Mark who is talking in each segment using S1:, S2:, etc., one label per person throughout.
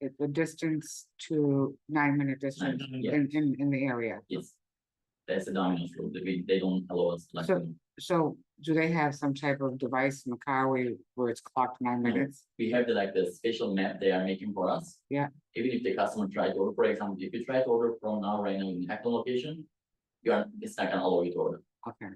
S1: it- the distance to nine minute distance
S2: yeah.
S1: in, in, in the area.
S2: Yes. There's a Domino's rule, that we, they don't allow us like.
S1: So- So do they have some type of device in Macau where it's clocked nine
S2: No.
S1: minutes?
S2: we have the like the special map they are making for us.
S1: Yeah.
S2: Even if the customer try to order, for example, if you try to order from now right now in Hackathon location, you are, it's not gonna allow you to order.
S1: Okay,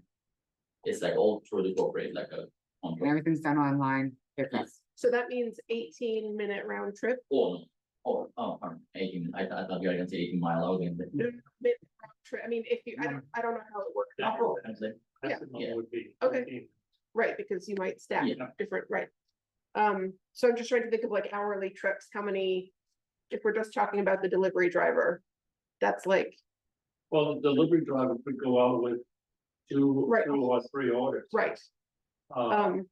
S2: It's like all through the corporate, like uh, a
S1: and
S2: contract.
S1: everything's done online, pickup.
S2: Yes.
S3: So that means eighteen minute round trip,
S2: Or, no. or, oh, pardon, eighteen, I thought, I thought you were gonna say eighteen mile, I was gonna say.
S3: Tri- I mean, if you, I don't, I don't know how it works. out.
S2: I'm saying,
S3: Yeah.
S2: Yeah.
S4: Maximum would be.
S3: Okay.
S4: 13.
S3: Right, because you might stack
S2: Yeah.
S3: different, right? Um, so I'm just trying to think of like hourly trips, how many, if we're just talking about the delivery driver. That's like,
S4: Well, the delivery driver could go out with two,
S3: Right.
S4: two or three orders.
S3: right,
S5: Oh.
S4: Uh,
S3: um,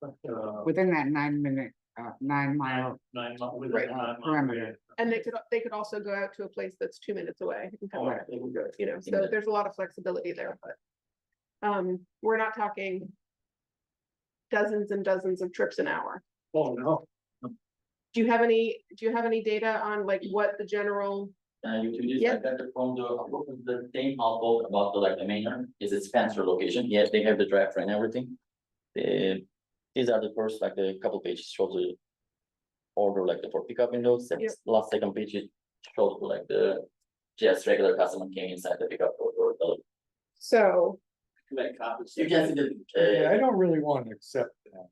S4: but, uh,
S1: within that nine minute, uh, nine mile,
S4: nine, mi- within
S3: Right.
S4: nine mile
S1: Perimeter.
S4: radius.
S3: and they could, they could also go out to a place that's two minutes away. and come
S4: Oh,
S3: back,
S4: there we go.
S3: You know, so there's a lot of flexibility there, but. Um, we're not talking. Dozens and dozens of trips an hour.
S4: Oh, no,
S3: Do you have any, do you have any data on like what the general,
S2: Uh, you two just,
S3: Yeah.
S2: I got it from the, from the same household about the like the main, one. is it Spencer location, yes, they have the draft and everything. The, these are the first, like the couple pages show the. Order like the for pickup windows, the
S3: Yep.
S2: last second page it shows like the. Just regular customer came inside the pickup or, or the.
S3: so,
S2: You can see the,
S5: Yeah,
S2: uh,
S5: I don't really want to accept that.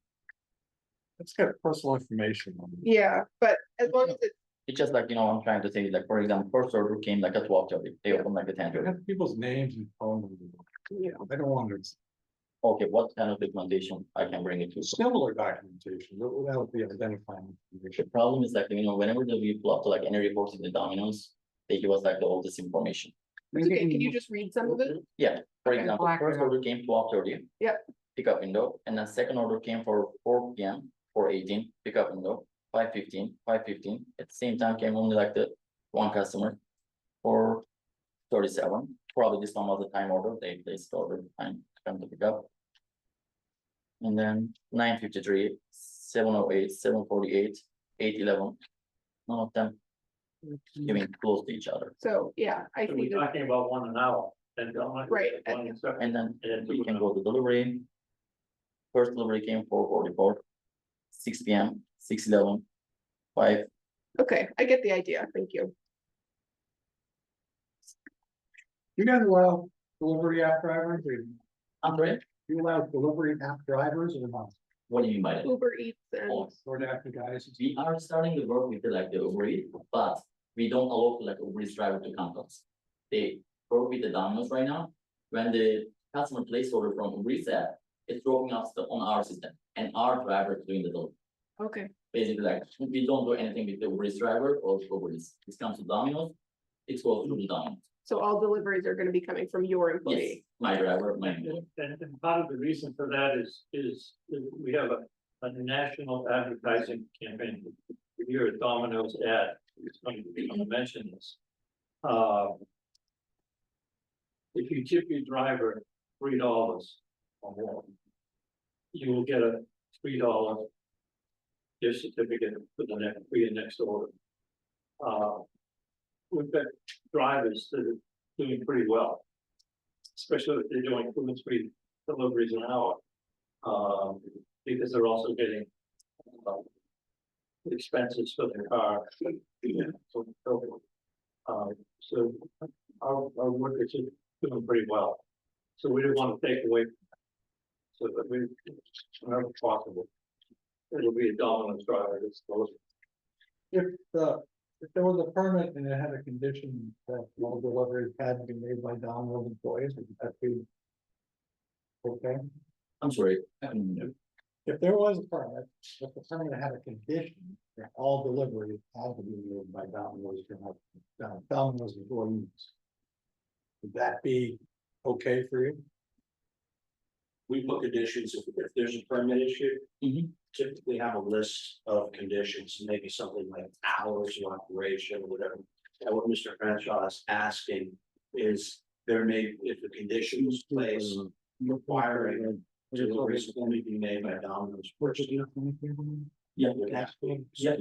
S5: It's got personal information on it.
S3: yeah, but as long as it,
S2: it's just like, you know, I'm trying to say, like, for example, first order came like at twelve thirty, they opened like a ten
S5: It
S2: thirty.
S5: has people's names and phone numbers.
S3: you know,
S5: I don't want it.
S2: Okay, what kind of documentation I can bring it to?
S5: Similar documentation, but without the identifying
S2: The
S5: information.
S2: problem is like, you know, whenever the we pull up to like any reports in the Domino's, they give us like all this information.
S3: it's
S1: maybe
S3: okay, can you
S1: in-
S3: just read some of it?
S2: For
S1: Okay,
S2: example,
S1: black
S2: first
S1: window.
S2: order came twelve thirty.
S3: Yep.
S2: Pickup window, and then second order came for four P M, four eighteen, pickup window, five fifteen, five fifteen, at the same time came only like the one customer. For thirty-seven, probably this one was a time order, they placed order time to come to pick up. And then nine fifty-three, seven oh eight, seven forty-eight, eight eleven. None of them giving close to each other,
S3: So, yeah, I
S4: So we're
S3: see that,
S4: talking about one an hour, and don't like.
S3: Right,
S4: one
S3: and-
S4: except-
S2: and then
S4: And
S2: we can go to delivery. First delivery came four forty-four, six P M, six eleven, five,
S3: okay, I get the idea, thank you.
S5: You guys allow delivery app drivers, or
S2: Andre,
S5: you allow delivery app drivers or not,
S2: what do you mean by that?
S3: Uber Eats and,
S2: Oh,
S5: sort of after guys?
S2: We are starting to work with the, like the Uber Eats, but we don't allow like Uber Eats driver to come to us. They work with the Domino's right now, when the customer place order from Uber Eats app, it's dropping us the- on our system, and our driver is doing the delivery.
S3: okay,
S2: Basically, like, we don't do anything with the Uber Eats driver or Uber Eats, this comes to Domino's, it's goes through the Domino's.
S3: so all deliveries are gonna be coming from your
S2: Yes,
S3: employee,
S2: my driver, my.
S4: And, and- and part of the reason for that is, is we have a, a national advertising campaign. Here at Domino's ad, it's going to be mentioned this. Uh, If you tip your driver three dollars or more, you will get a three dollar gift certificate for the next, for your next order. Uh, We've got drivers that are doing pretty well especially if they're doing two and three deliveries an hour. Um, because they're also getting. um, Expenses for their car. so- so forth. Um, so our, our workers are doing pretty well, so we do not want to take away. from that. So that we, whenever possible. It'll be a dominant driver, it's those,
S5: If the, if there was a permit and it had a condition that all deliveries had to be made by Domino's employees, would that be? Okay?
S2: I'm sorry. um,
S5: If there was a permit, if the permit had a condition that all deliveries had to be made by Domino's, uh, Domino's employees. Would that be okay for you?
S6: we put conditions, if, if there's a permit issue.
S2: Mhm.
S6: Typically have a list of conditions, maybe something like hours of operation, whatever. And what Mr. Crenshaw is asking is there may, if the condition was placed, requiring deliveries only be made by Domino's.
S5: Which is, you know,
S2: Yeah.
S6: It would have to be-
S2: Yeah.